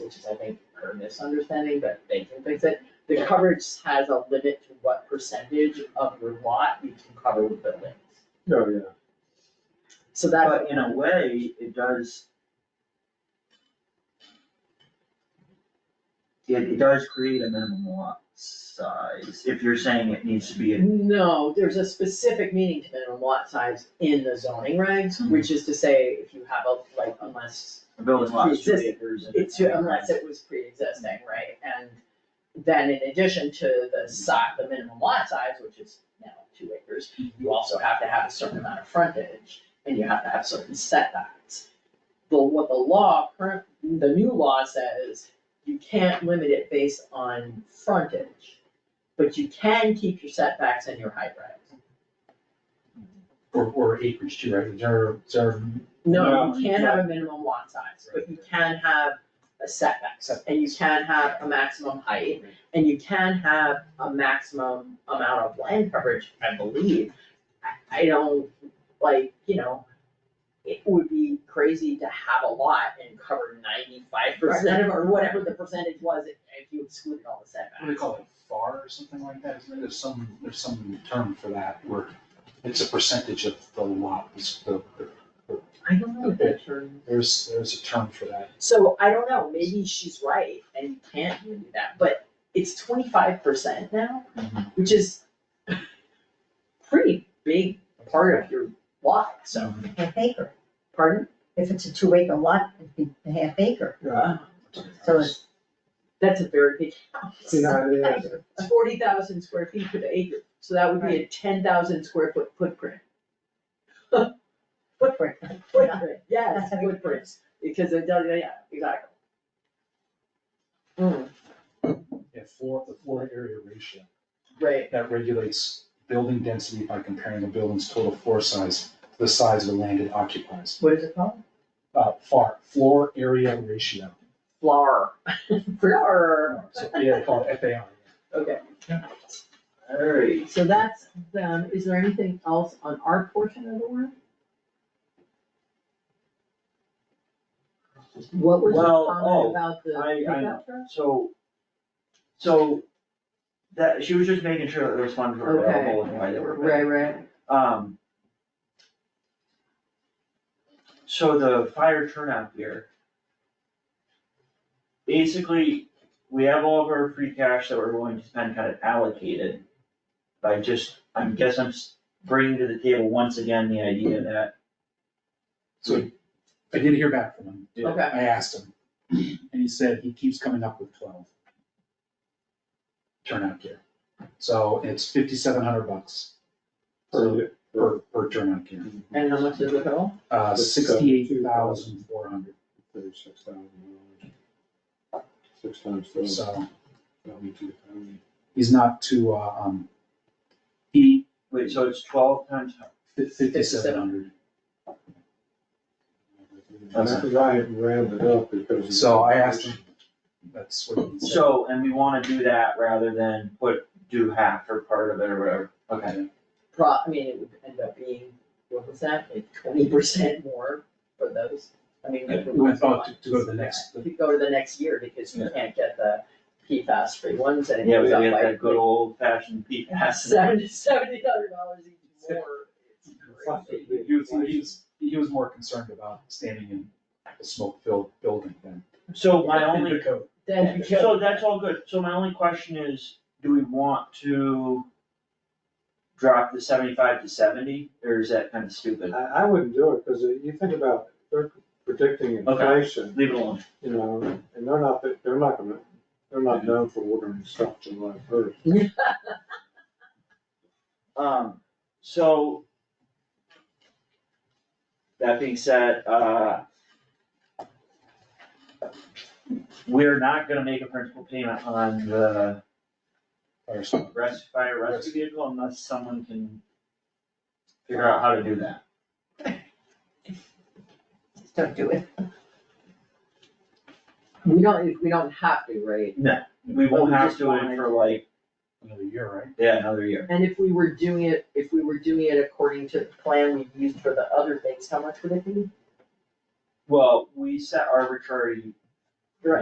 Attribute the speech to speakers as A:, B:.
A: which is, I think, a misunderstanding, but they can fix it. The coverage has a limit to what percentage of your lot you can cover with buildings.
B: Oh, yeah.
A: So that's.
C: But in a way, it does. It, it does create a minimum lot size, if you're saying it needs to be a
A: No, there's a specific meaning to minimum lot size in the zoning regs,
C: Hmm.
A: which is to say, if you have a, like, unless
C: a building lot, is two
A: Pre-existing.
C: acres. and-
A: it's, unless it was pre-existing, right? And then in addition to the si, the minimum lot size, which is now two acres, you also have to have a certain amount of frontage, and you have to have certain setbacks. But what the law, current, the new law says, you can't limit it based on frontage, but you can keep your setbacks and your height regs.
D: Or, or acreage too, right, is there, is there,
A: No,
C: No,
A: you
C: you
A: can't have a minimum lot size, but you can have a setback, and you can have a maximum height, and you can have a maximum amount of land coverage, I believe. I, I don't, like, you know, it would be crazy to have a lot and cover ninety-five percent of, or whatever the percentage was, if if you excluded all the setbacks.
D: what do they call it, FAR or something like that, isn't there, there's some, there's some term for that, where it's a percentage of the lot, it's the,
A: I don't know the term.
D: there's, there's a term for that.
A: So I don't know, maybe she's right and you can't do that, but it's twenty-five percent now,
C: Mhm.
A: which is pretty big part of your lot, so,
C: So,
E: half acre.
A: pardon?
E: If it's a two acre lot, it'd be a half acre. So it's-
A: That's a very big house.
B: You know, how it is.
A: It's forty thousand square feet per acre, so that would be a ten thousand square foot footprint.
E: footprint.
A: Footprint, yes,
E: That's how you-
A: footprints, because it does, yeah, exactly. Mm,
D: Yeah, floor, the floor area ratio,
A: right,
D: that regulates building density by comparing a building's total floor size to the size of the land it occupies.
A: what is it called?
D: Uh, FAR, floor area ratio,
A: Flower. Flower.
D: so, yeah, they call it FAR.
A: Okay.
C: alright,
A: So that's, um, is there anything else on our portion of the work? What was the
C: Well,
A: comment
C: oh,
A: about
C: I- I
A: the pickup
C: know.
A: truck?
C: so, so, that, she was just making sure that those funds were
A: Okay.
C: available and why they were available.
A: Right, right,
C: Um. So the fire turnout gear. Basically, we have all of our free cash that we're going to spend kind of allocated. By just, I guess I'm s- bringing to the table once again the idea that,
D: So I did hear back from him.
C: Yeah.
A: Okay.
D: I asked him, and he said he keeps coming up with twelve. Turnout gear. So it's fifty-seven hundred bucks
B: Or-
D: per, per turnout gear.
A: and how much is it all?
D: Uh,
B: That's
D: sixty-eight thousand four hundred,
B: Thirty-six thousand dollars. Six times seven,
D: so
B: that'll be two thousand.
D: he's not too, uh, um, he,
C: wait, so it's twelve times,
D: fifty-seven hundred.
B: That's why I haven't rounded up because.
D: So I asked him, that's what he said.
C: so, and we wanna do that rather than put, do half or part of it or whatever. Okay,
A: Pro, I mean, it would end up being, what was that, like twenty percent more for those? I mean.
D: Yeah,
A: for
D: we
A: those
D: thought to- to go to the
A: ones.
D: next-
A: Yeah, To go to the next year, because you can't get the PFAS free ones, and it
C: yeah, we
A: goes up
C: got that
A: like
C: good old fashioned PFAS.
A: seventy, seventy hundred dollars each more. It's crazy.
D: He was, he was, he was more concerned about standing in a smoke-filled building than.
C: So my only
D: The code.
A: Then you go.
C: So that's all good, so my only question is, do we want to drop the seventy-five to seventy, or is that kind of stupid?
B: I, I wouldn't do it because you think about, they're predicting inflation,
C: Leave it alone.
B: you know, and they're not, they're not gonna, they're not known for ordering stuff July first.
C: Um, so. That being said, uh. We're not gonna make a principal payment on the
D: Or something.
C: res, fire rescue vehicle unless someone can figure out how to do that.
E: Just don't do it.
A: We don't, we don't have to, right?
C: We won't have to wait for like,
D: Another year, right?
C: yeah, another year.
A: And if we were doing it, if we were doing it according to the plan we used for the other things, how much would it be?
C: Well, we set arbitrary